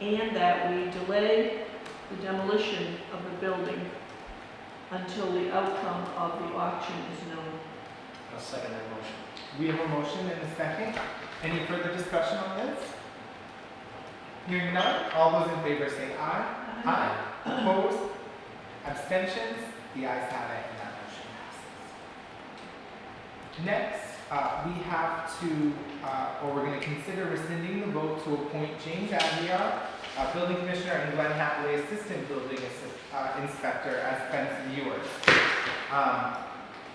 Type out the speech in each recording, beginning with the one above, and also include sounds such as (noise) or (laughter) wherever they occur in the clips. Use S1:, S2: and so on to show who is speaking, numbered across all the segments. S1: and that we delay the demolition of the building until the outcome of the auction is known.
S2: I'll second that motion.
S3: We have a motion and a second. Any further discussion on this? Hearing none, all those in favor say aye. Aye. Opposed? Abstentions? The ayes have it, and that motion passes. Next, uh, we have to, uh, or we're gonna consider rescinding the vote to appoint James Aguirre, uh, building commissioner, and Glenn Hathaway, assistant building assi- uh, inspector, as fence viewers. Um,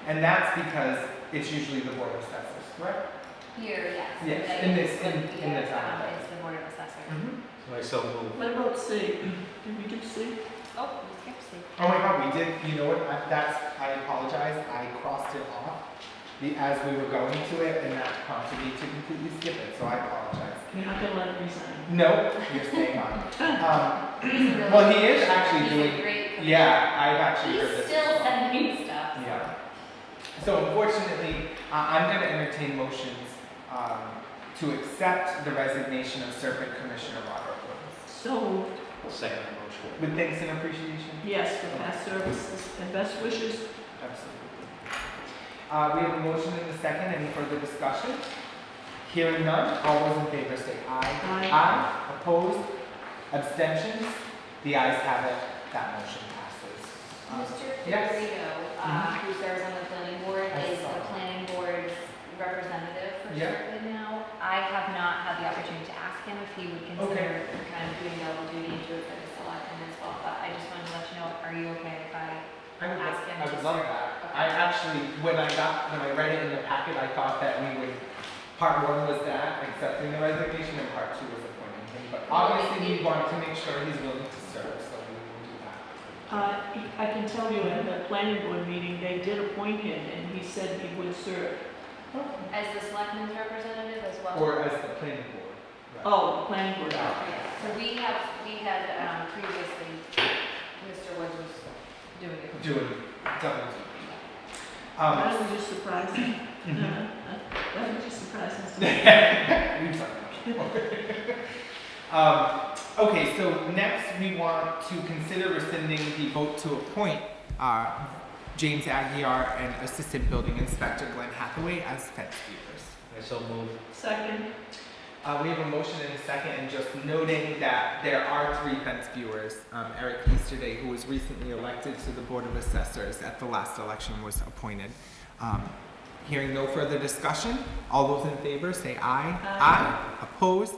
S3: and that's because it's usually the board of assessors, correct?
S4: Here, yes.
S3: Yes,
S4: Like,
S3: in this- in-
S4: like,
S3: in the
S4: yeah,
S3: town.
S4: um, It's the board of assessors.
S3: Mhm.
S2: Myself move.
S1: What about C? Did we do C?
S4: Oh, we skipped C.
S3: Oh my god, we did, you know what, I- that's, I apologize, I crossed it off the, as we were going to it, and that prompted me to completely skip it, so I apologize.
S1: You're not gonna let it resign.
S3: No, you're staying on. Um,
S4: He's a really-
S3: well, he is actually
S4: he's a
S3: doing,
S4: great commissioner.
S3: yeah, I've actually heard
S4: He's
S3: this.
S4: still
S3: before.
S4: sending stuff.
S3: Yeah. So unfortunately, I- I'm going to entertain motions um, to accept the resignation of Serpent Commissioner Robert Woods.
S1: So moved.
S2: Second that motion.
S3: With thanks and appreciation?
S1: Yes, for past services and best wishes.
S3: Absolutely. Uh, we have a motion and a second. Any further discussion? Hearing none, all those in favor say aye.
S1: Aye.
S3: Aye. Opposed? Abstentions? The ayes have it. That motion passes.
S4: Mr.
S3: Yes. Mm-hmm.
S4: Figurito, uh, who serves on the planning board,
S3: I
S4: is
S3: saw
S4: the
S3: that.
S4: planning board's representative for
S3: Yeah.
S4: Sherwood now. I have not had the opportunity to ask him if he would consider kind of doing double duty to it for the selectmen as well, but I just wanted to let you know, are you okay if I?
S3: I would,
S4: Ask him
S3: I
S4: to
S3: would love that. I actually, when I got, when I read it in the packet, I thought that we would, part one was that, accepting the resignation, and part two was appointing him. But obviously, we want to make sure he's willing to serve, so we will do that.
S1: Uh, I can tell you at the planning board meeting, they did appoint him and he said he would serve.
S3: Okay.
S4: As the selectmen's representative as well?
S3: Or as the planning board. right?
S1: Oh, the planning board.
S4: Yeah, So we have, we had um, previously, Mr. Woods was doing it.
S3: (laughs) doing double duty. Um, (laughs)
S1: That was just surprising. (laughs) That was just surprising. (laughs)
S3: we've done that. (laughs) Um, okay, so next we want to consider rescinding the vote to appoint, uh, James Aguirre and Assistant Building Inspector Glenn Hathaway as fence viewers.
S2: Myself move.
S1: Second,
S3: Uh, we have a motion and a second, and just noting that there are three fence viewers. Um, Eric Easterday, who was recently elected to the Board of Assessors at the last election, was appointed. Um, hearing no further discussion, all those in favor say aye.
S1: Aye.
S3: Opposed?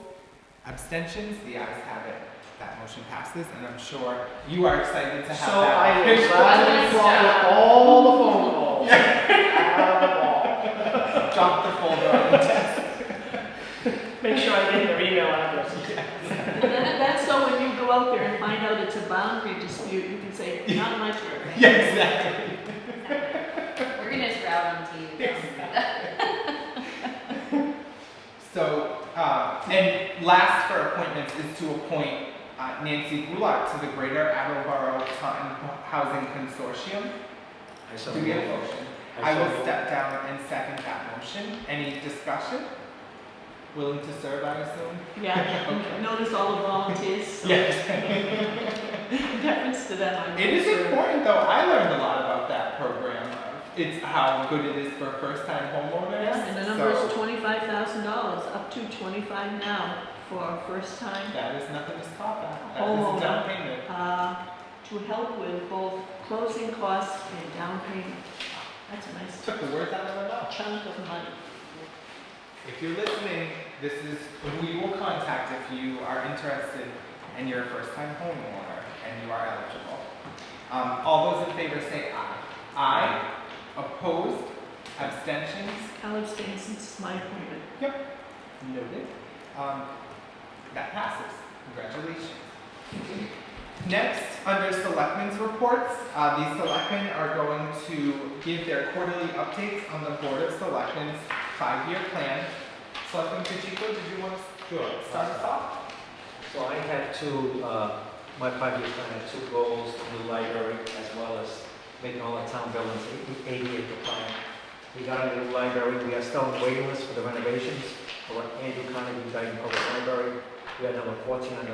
S3: Abstentions? The ayes have it. That motion passes, and I'm sure you are excited to have
S2: So
S3: that.
S2: I will gladly swallow all the phone calls.
S3: (laughs)
S2: Yeah.
S3: Drop the folder on the (laughs) desk.
S2: Make sure I get their email address.
S1: That- that's so when you go out there and find out it's a boundary dispute, you can say, not my turf.
S3: Yeah, exactly.
S4: We're gonna just route them to um, you.
S3: So, uh, and last for appointments is to appoint uh, Nancy Gulart to the Greater Attleboro Taunton Housing Consortium.
S2: Myself
S3: Do we have a
S2: move.
S3: motion? I
S2: Myself
S3: will
S2: move.
S3: step down and second that motion. Any discussion? Willing to serve, I assume? (laughs)
S1: Yeah, notice all the volunteers. so (laughs) Deference to them. I'm
S3: It is
S1: sure.
S3: important though, I learned a lot about that program. It's how good it is for first-time homeowners.
S1: And the number
S3: So
S1: is twenty-five thousand dollars, up to twenty-five now for a first time,
S3: That is nothing to scoff at. That is a
S1: Homeowner.
S3: down payment.
S1: uh, to help with both closing costs and down payment. That's a nice
S3: Took the words out of my mouth.
S1: chunk of money.
S3: If you're listening, this is who you will contact if you are interested and you're a first-time homeowner and you are eligible. Um, all those in favor say aye. Aye. Opposed? Abstentions?
S1: College stands since my appointment.
S3: Noted. Um, that passes. Congratulations. Next, under selectmen's reports, uh, the selectmen are going to give their quarterly updates on the Board of Selectmen's five-year plan. Selectman Pacheco, did you want to
S2: Sure.
S3: Start us off?
S2: So I had two, uh, my five-year plan had two goals, the new library as well as making all the town buildings ADA compliant. We got a new library, we are still on waiting list for the renovations, for Andrew Carnegie Dyke Public Library. We had number 14 on the